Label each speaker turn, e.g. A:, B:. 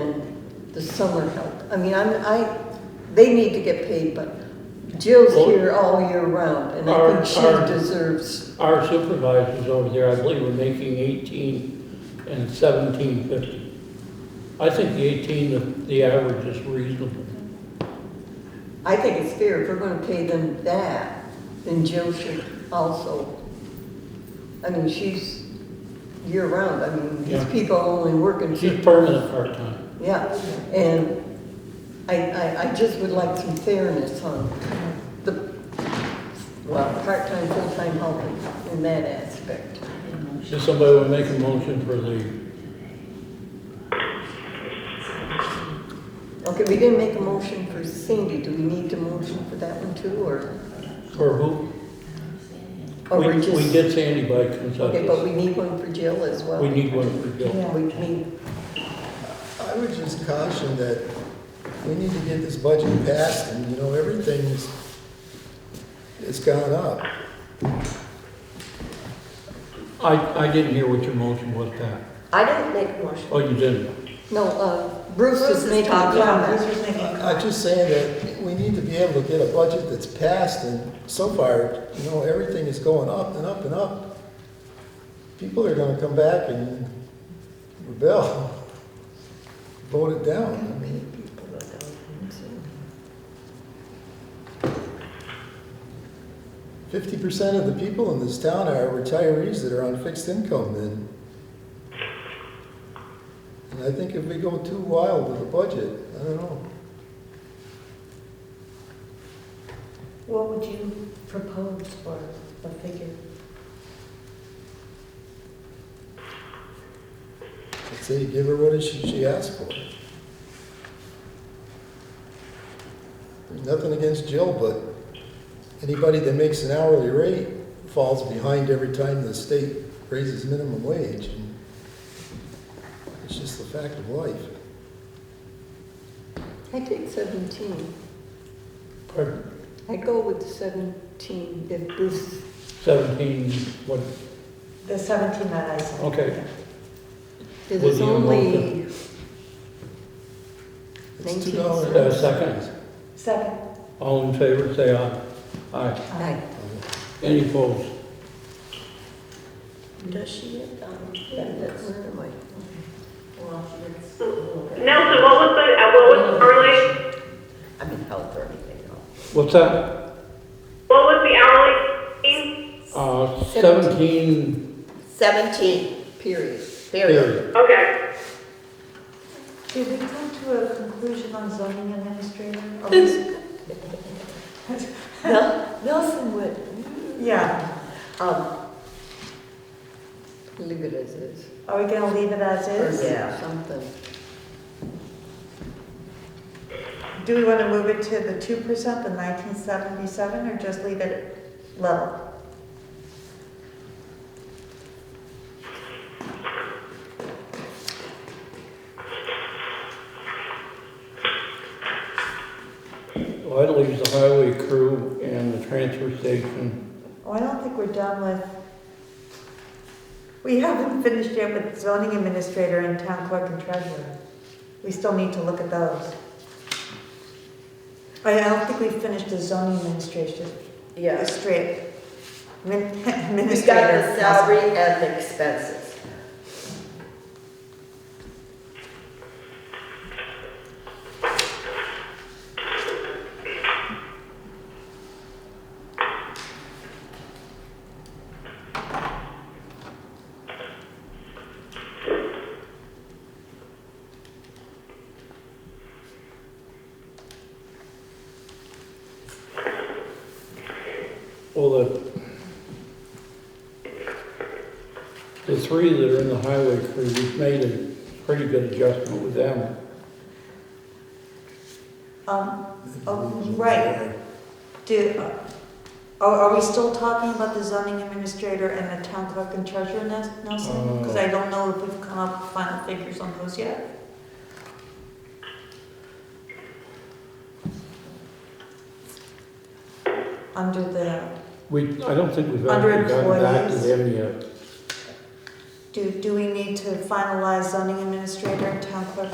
A: than the summer help. I mean, I'm, I, they need to get paid, but Jill's
B: Well-
A: here all year round, and I
B: Our-
A: think
B: our-
A: she deserves,
B: Our supervisors over there, I believe, were making eighteen and seventeen fifty. I think the eighteen, the, the average is reasonable.
A: I think it's fair, if we're gonna pay them that, then Jill should also. I mean, she's year round, I mean, these
B: Yeah.
A: people are only working.
B: She's permanent part-time.
A: Yeah, and I, I, I just would like some fairness on the, well, part-time, full-time helping in that aspect.
B: Does somebody want to make a motion for the,
A: Okay, we didn't make a motion for Cindy, do we need to motion for that one too, or?
B: for who?
A: or
B: We-
A: we're just-
B: We did Sandy by
A: Okay, but we
B: consensus.
A: need one for Jill as well.
B: We need one for Jill.
A: Yeah, we need,
C: I would just caution that we need to get this budget passed, and, you know, everything's, it's gone up.
B: I, I didn't hear what your motion was, Pat.
D: I didn't make a motion.
B: Oh, you didn't?
A: no, uh, Bruce
D: Bruce
A: is
D: is
A: making a
D: talking, Bruce
A: comment.
D: was making a
C: I- I'm
D: comment.
C: just saying that we need to be able to get a budget that's passed, and so far, you know, everything is going up and up and up. People are gonna come back and rebel, vote it down. I mean, fifty percent of the people in this town are retirees that are on fixed income, and and I think if we go too wild with the budget, I don't know.
D: What would you propose for a figure?
C: I'd say give her what she, she asked for. There's nothing against Jill, but anybody that makes an hourly rate falls behind every time the state raises minimum wage. and It's just the fact of life.
A: I take seventeen,
B: Pardon?
A: I go with seventeen if Bruce,
B: Seventeen, what,
D: The 17 that I said.
B: Okay.
A: because
B: Would
A: it's
B: you motion?
A: only,
C: It's two
A: Nineteen
C: dollars.
B: uh, seconds?
D: Second.
B: All in favor, say aye. Aye.
A: I,
B: Any opposed?
D: Does she have, um, benefits?
A: where am I?
D: Well, she gets a little bit.
E: Nelson, what was the, uh, what was the hourly,
D: I mean, health or anything else.
B: What's that?
E: what was the hourly fee?
B: Uh, seventeen,
D: 17,
A: Period.
D: period.
B: period.
E: Okay,
F: Did we come to a conclusion on zoning administrator? Or was-
D: Nel- Nelson would,
F: Yeah,
D: um,
A: Leave it as is.
F: are we gonna leave it as is?
D: yeah.
A: Something.
F: Do we wanna move it to the two percent, the nineteen seventy-seven, or just leave it level?
B: Well, that leaves the highway crew and the transfer station.
F: Oh, I don't think we're done with, we haven't finished yet with zoning administrator and town clerk and treasurer. We still need to look at those. I don't think we've finished the zoning administration, the
D: Yes.
F: straight min-
D: We
F: administrator.
D: got the salary and the expenses.
B: Well, the, the three that are in the highway crew, we've made a pretty good adjustment with them.
F: Um, oh, right. Do, uh, are, are we still talking about the zoning administrator and the town clerk and treasurer, Nes- Nelson? Because I don't know if we've come up with final figures on those yet. Under the,
B: We, I don't think we've
F: Under
B: actually gotten back to
F: employees.
B: them yet.
F: do, do we need to finalize zoning administrator and town clerk